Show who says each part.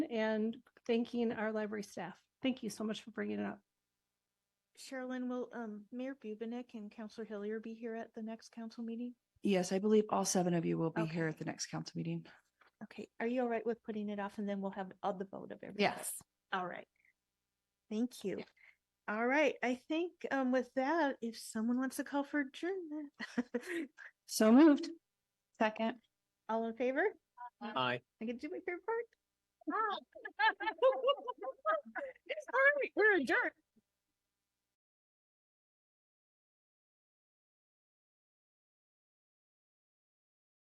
Speaker 1: and thanking our library staff. Thank you so much for bringing it up.
Speaker 2: Sherilyn, will um, Mayor Bubenick and Counselor Hillier be here at the next council meeting?
Speaker 3: Yes, I believe all seven of you will be here
Speaker 2: Okay.
Speaker 3: at the next council meeting.
Speaker 2: Okay, are you all right with putting it off and then we'll have all the vote of everybody? All right. Thank you. All right, I think um, with that, if someone wants to call for adjournment,
Speaker 3: So moved.
Speaker 4: Second.
Speaker 2: all in favor?
Speaker 5: Aye.
Speaker 2: I can do my favorite part. All right, we're adjourned.